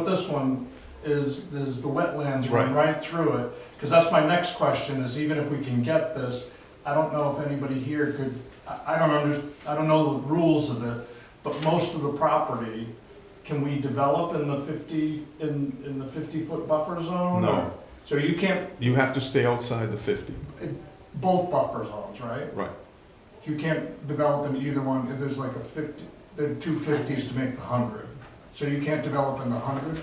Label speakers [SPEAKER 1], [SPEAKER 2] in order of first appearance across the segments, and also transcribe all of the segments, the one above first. [SPEAKER 1] this one is, is the wetlands run
[SPEAKER 2] Right.
[SPEAKER 1] right through it. Because that's my next question, is even if we can get this, I don't know if anybody here could, I, I don't under, I don't know the rules of it, but most of the property, can we develop in the fifty, in, in the fifty-foot buffer zone?
[SPEAKER 2] No.
[SPEAKER 1] or- So you can't,
[SPEAKER 2] You have to stay outside the 50.
[SPEAKER 1] both buffer zones, right?
[SPEAKER 2] Right.
[SPEAKER 1] You can't develop in either one, if there's like a fifty, there are two fifties to make the hundred. So you can't develop in the hundred?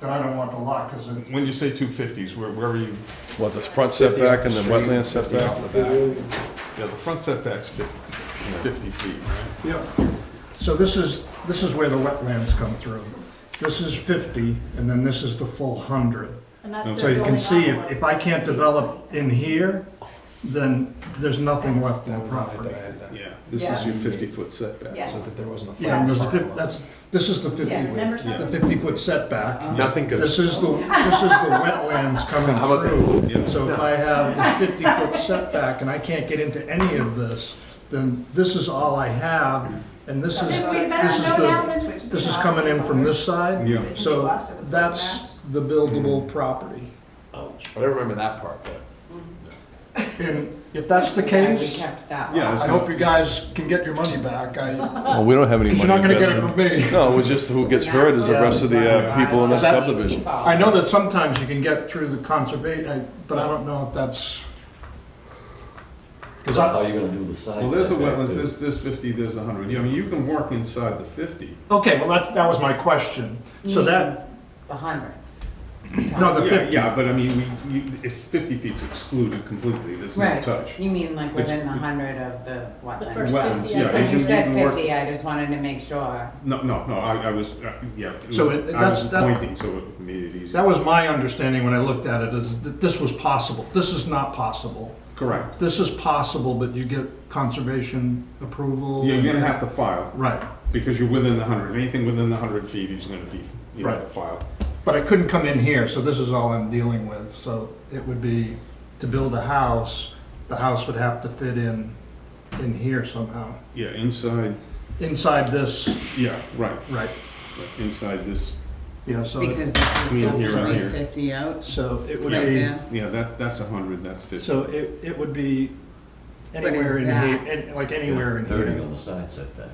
[SPEAKER 1] Then I don't want the lot, because it's,
[SPEAKER 2] When you say 250s, where, where are you?
[SPEAKER 3] What, the front
[SPEAKER 4] 50
[SPEAKER 3] setback
[SPEAKER 4] off
[SPEAKER 3] and
[SPEAKER 4] the
[SPEAKER 3] the
[SPEAKER 4] street,
[SPEAKER 3] wetland
[SPEAKER 4] 50
[SPEAKER 3] setback?
[SPEAKER 4] off the back.
[SPEAKER 2] Yeah, the front setback's 50 50 feet, right?
[SPEAKER 1] Yeah, so this is, this is where the wetlands come through. This is 50, and then this is the full 100.
[SPEAKER 5] And that's
[SPEAKER 1] So
[SPEAKER 5] their
[SPEAKER 1] you can
[SPEAKER 5] building
[SPEAKER 1] see, if,
[SPEAKER 5] envelope.
[SPEAKER 1] if I can't develop in here, then there's nothing left
[SPEAKER 4] That
[SPEAKER 1] on the
[SPEAKER 4] was the height
[SPEAKER 1] property.
[SPEAKER 4] that I had that,
[SPEAKER 2] Yeah. This
[SPEAKER 5] Yeah.
[SPEAKER 2] is your 50-foot setback.
[SPEAKER 4] so
[SPEAKER 5] Yes,
[SPEAKER 4] that there wasn't a.
[SPEAKER 1] Yeah, and there's, a
[SPEAKER 4] front
[SPEAKER 1] fif-
[SPEAKER 4] lot.
[SPEAKER 1] that's, this is the 50,
[SPEAKER 5] yeah, remember
[SPEAKER 2] Yeah.
[SPEAKER 1] the
[SPEAKER 5] something? Uh-huh.
[SPEAKER 1] 50-foot setback.
[SPEAKER 2] Nothing could,
[SPEAKER 1] This is the, this is the wetlands coming
[SPEAKER 2] How about this?
[SPEAKER 1] through.
[SPEAKER 2] Yeah.
[SPEAKER 1] So if I have the 50-foot setback and I can't get into any of this, then this is all I have, and this
[SPEAKER 5] Then
[SPEAKER 1] is,
[SPEAKER 5] we
[SPEAKER 1] this
[SPEAKER 5] better
[SPEAKER 1] is
[SPEAKER 5] go
[SPEAKER 1] the,
[SPEAKER 5] down and.
[SPEAKER 1] This is coming in from this side,
[SPEAKER 2] yeah.
[SPEAKER 1] so that's the buildable property.
[SPEAKER 4] But I remember that part, but.
[SPEAKER 1] Mm-hmm. And if that's the
[SPEAKER 6] And we
[SPEAKER 1] case,
[SPEAKER 6] kept that
[SPEAKER 2] Yeah,
[SPEAKER 6] one.
[SPEAKER 1] I hope you guys can get your money back, I,
[SPEAKER 3] Well, we don't have any
[SPEAKER 1] because
[SPEAKER 3] money
[SPEAKER 1] you're not gonna get it
[SPEAKER 3] invested.
[SPEAKER 1] from me.
[SPEAKER 3] No, it was just who gets hurt is the rest of the uh, people in the
[SPEAKER 1] Is that-
[SPEAKER 3] subdivision.
[SPEAKER 1] I know that sometimes you can get through the conservation, but I don't know if that's,
[SPEAKER 7] Because how are you gonna do the side
[SPEAKER 2] Well, there's the
[SPEAKER 7] setback
[SPEAKER 2] wetlands,
[SPEAKER 7] too?
[SPEAKER 2] there's, there's 50, there's 100. Yeah, I mean, you can work inside the 50.
[SPEAKER 1] okay, well, that, that was my question. So that,
[SPEAKER 6] The hundred.
[SPEAKER 1] no, the
[SPEAKER 2] Yeah,
[SPEAKER 1] fifty,
[SPEAKER 2] yeah, but I mean, we, you, it's 50 feet's excluded completely, there's no
[SPEAKER 6] Right.
[SPEAKER 2] touch.
[SPEAKER 6] You mean like
[SPEAKER 2] Which-
[SPEAKER 6] within the hundred of the
[SPEAKER 5] The
[SPEAKER 6] wetland?
[SPEAKER 5] first
[SPEAKER 2] Wetlands,
[SPEAKER 5] 50,
[SPEAKER 2] yeah,
[SPEAKER 5] I
[SPEAKER 6] Because
[SPEAKER 5] think.
[SPEAKER 6] you said
[SPEAKER 2] can work-
[SPEAKER 6] fifty, I just wanted to make sure.
[SPEAKER 2] No, no, no, I, I was, uh, yeah, it was,
[SPEAKER 1] So it-
[SPEAKER 2] I
[SPEAKER 1] that's-
[SPEAKER 2] was
[SPEAKER 1] that-
[SPEAKER 2] pointing, so it made it easier.
[SPEAKER 1] that was my understanding when I looked at it, is that this was possible. This is not possible.
[SPEAKER 2] Correct.
[SPEAKER 1] This is possible, but you get conservation approval.
[SPEAKER 2] Yeah, you're gonna have to file,
[SPEAKER 1] Right.
[SPEAKER 2] because you're within the 100. Anything within the 100 feet is gonna be, you have to
[SPEAKER 1] Right.
[SPEAKER 2] file.
[SPEAKER 1] But I couldn't come in here, so this is all I'm dealing with. So it would be to build a house, the house would have to fit in, in here somehow.
[SPEAKER 2] Yeah, inside,
[SPEAKER 1] Inside this,
[SPEAKER 2] yeah, right,
[SPEAKER 1] right,
[SPEAKER 2] right, inside this,
[SPEAKER 1] yeah, so,
[SPEAKER 8] Because this is
[SPEAKER 2] Me
[SPEAKER 8] still
[SPEAKER 2] here and here.
[SPEAKER 8] three fifty out,
[SPEAKER 1] so it would
[SPEAKER 8] right
[SPEAKER 1] be,
[SPEAKER 8] there.
[SPEAKER 2] yeah, that, that's 100, that's 50.
[SPEAKER 1] so it, it would be
[SPEAKER 8] But it's
[SPEAKER 1] anywhere in here,
[SPEAKER 8] that.
[SPEAKER 1] and- like anywhere in
[SPEAKER 7] Thirty
[SPEAKER 1] here.
[SPEAKER 7] on the side setback.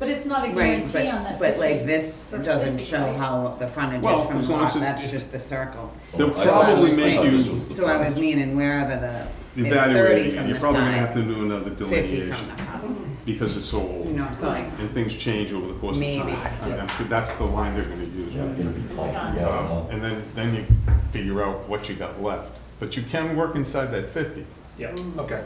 [SPEAKER 5] But it's not a
[SPEAKER 8] Right,
[SPEAKER 5] guarantee
[SPEAKER 8] but,
[SPEAKER 5] on that.
[SPEAKER 8] but like this
[SPEAKER 5] First
[SPEAKER 8] doesn't
[SPEAKER 5] 50,
[SPEAKER 8] show
[SPEAKER 5] right.
[SPEAKER 8] how the frontage
[SPEAKER 2] Well,
[SPEAKER 8] is from
[SPEAKER 2] as
[SPEAKER 8] the
[SPEAKER 2] long
[SPEAKER 8] lot,
[SPEAKER 2] as it-
[SPEAKER 8] that's just the circle.
[SPEAKER 2] They'll
[SPEAKER 7] Oh, I thought
[SPEAKER 2] probably
[SPEAKER 7] this-
[SPEAKER 2] make
[SPEAKER 7] I thought
[SPEAKER 2] you-
[SPEAKER 7] this was the
[SPEAKER 8] So I was
[SPEAKER 7] front.
[SPEAKER 8] meaning wherever the, it's thirty
[SPEAKER 2] Evaluating, it,
[SPEAKER 8] from
[SPEAKER 2] you're
[SPEAKER 8] the
[SPEAKER 2] probably gonna have
[SPEAKER 8] side,
[SPEAKER 2] to do another
[SPEAKER 8] fifty from
[SPEAKER 2] delineation,
[SPEAKER 8] the house,
[SPEAKER 2] because it's so old.
[SPEAKER 8] you know what I'm saying?
[SPEAKER 2] And things change over the course of time.
[SPEAKER 8] Maybe.
[SPEAKER 2] I mean, I'm sure that's the line they're gonna use.
[SPEAKER 7] Yeah, it's gonna be pulpy, yeah, I don't
[SPEAKER 2] Um,
[SPEAKER 7] know.
[SPEAKER 2] And then, then you figure out what you got left. But you can work inside that 50.
[SPEAKER 1] Yeah,
[SPEAKER 8] Mm.
[SPEAKER 1] okay.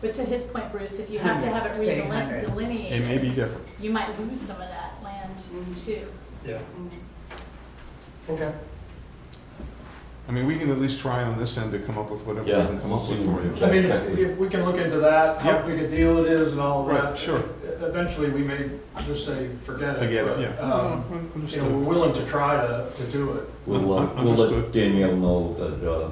[SPEAKER 5] But to his point, Bruce, if you have to have it
[SPEAKER 6] Say 100.
[SPEAKER 2] It
[SPEAKER 5] redelineated,
[SPEAKER 2] may be different.
[SPEAKER 5] you might lose some of that land too.
[SPEAKER 1] Yeah. Okay.
[SPEAKER 2] I mean, we can at least try on this end to come up with whatever we
[SPEAKER 7] Yeah,
[SPEAKER 2] can come up
[SPEAKER 7] we'll
[SPEAKER 2] with
[SPEAKER 7] see
[SPEAKER 2] for
[SPEAKER 7] what we
[SPEAKER 2] you.
[SPEAKER 7] can.
[SPEAKER 1] I mean, if if we can look into that, how
[SPEAKER 2] Yeah.
[SPEAKER 1] big a deal it is and all of that.
[SPEAKER 2] Right, sure.
[SPEAKER 1] Eventually, we may just say, forget it.
[SPEAKER 2] Forget it,
[SPEAKER 1] but,
[SPEAKER 2] yeah.
[SPEAKER 1] um,
[SPEAKER 2] Um,
[SPEAKER 1] You know,
[SPEAKER 2] understood.
[SPEAKER 1] we're willing to try to, to do it.
[SPEAKER 7] We'll,
[SPEAKER 2] Un-
[SPEAKER 7] uh, we'll
[SPEAKER 2] understood.
[SPEAKER 7] let Danielle know that, uh,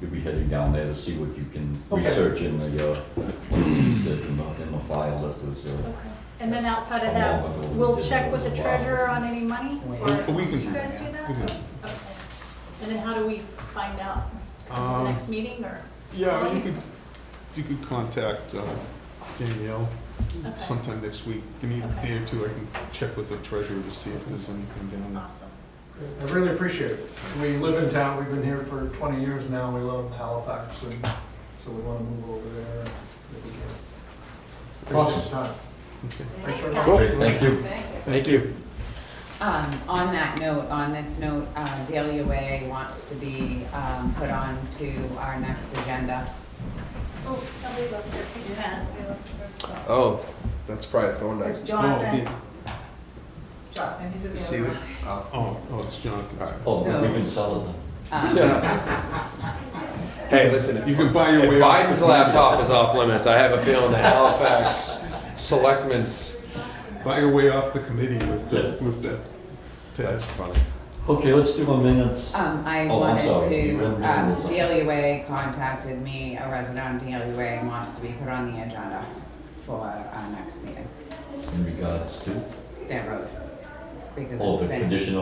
[SPEAKER 7] you'll be heading down there to see what you can
[SPEAKER 1] Okay.
[SPEAKER 7] research in the, uh, what you said in the, in the file that was, uh,
[SPEAKER 5] Okay. And then outside
[SPEAKER 7] How
[SPEAKER 5] of that,
[SPEAKER 7] long ago we
[SPEAKER 5] we'll
[SPEAKER 7] did
[SPEAKER 5] check
[SPEAKER 7] it
[SPEAKER 5] with the
[SPEAKER 7] was a while.
[SPEAKER 5] treasurer on any money, or
[SPEAKER 2] But we
[SPEAKER 5] do
[SPEAKER 2] can-
[SPEAKER 5] you guys do that?
[SPEAKER 2] we can.
[SPEAKER 5] Okay. And then how do we find out? Come to
[SPEAKER 2] Um,
[SPEAKER 5] the next meeting, or?
[SPEAKER 2] Yeah, you could, you could contact uh, Danielle
[SPEAKER 1] hmm,
[SPEAKER 5] Okay,
[SPEAKER 2] sometime next week. Give me a
[SPEAKER 5] Okay.
[SPEAKER 2] day or two, I can check with the treasurer to see if there's anything down there.
[SPEAKER 5] awesome.
[SPEAKER 1] I really appreciate it. We live in town, we've been here for 20 years now, we live in Halifax, and so we want to move over there. if we can. Appreciate the time.
[SPEAKER 5] Thanks,
[SPEAKER 1] Thanks,
[SPEAKER 5] guys.
[SPEAKER 1] Cool.
[SPEAKER 7] Great, thank you.
[SPEAKER 4] Thank you.
[SPEAKER 6] Um, on that note, on this note, uh, Delia Way wants to be, um, put on to our next agenda.
[SPEAKER 5] Oh, somebody left their pink pen.
[SPEAKER 4] Oh, that's probably Thorndike.
[SPEAKER 9] It's
[SPEAKER 2] Oh,
[SPEAKER 9] Jonathan.
[SPEAKER 2] Dan-
[SPEAKER 9] Jonathan, he's
[SPEAKER 4] See
[SPEAKER 9] available.
[SPEAKER 4] what? oh.
[SPEAKER 2] Oh, oh, it's Jonathan's.
[SPEAKER 7] Oh,
[SPEAKER 6] So-
[SPEAKER 7] we can sell it then.
[SPEAKER 6] Um,
[SPEAKER 4] Yeah. Hey, listen,
[SPEAKER 2] You
[SPEAKER 4] if
[SPEAKER 2] can buy your
[SPEAKER 4] if
[SPEAKER 2] way out.
[SPEAKER 4] Biden's laptop is off limits, I have a feeling the Halifax selectmen's,
[SPEAKER 2] Buy your way off the committee with the, with the.
[SPEAKER 4] that's funny.
[SPEAKER 7] Okay, let's do a minutes.
[SPEAKER 5] Uh.
[SPEAKER 6] Um, I
[SPEAKER 7] Oh, I'm
[SPEAKER 6] wanted
[SPEAKER 7] sorry. You
[SPEAKER 6] to,
[SPEAKER 7] ran- ran
[SPEAKER 6] um,
[SPEAKER 7] this up.
[SPEAKER 6] Delia Way contacted me, a resident on Delia Way, and wants to be put on the agenda for our next meeting,
[SPEAKER 7] In regards to,
[SPEAKER 6] their road. Because
[SPEAKER 7] oh,
[SPEAKER 6] it's
[SPEAKER 7] the
[SPEAKER 6] been-
[SPEAKER 7] condition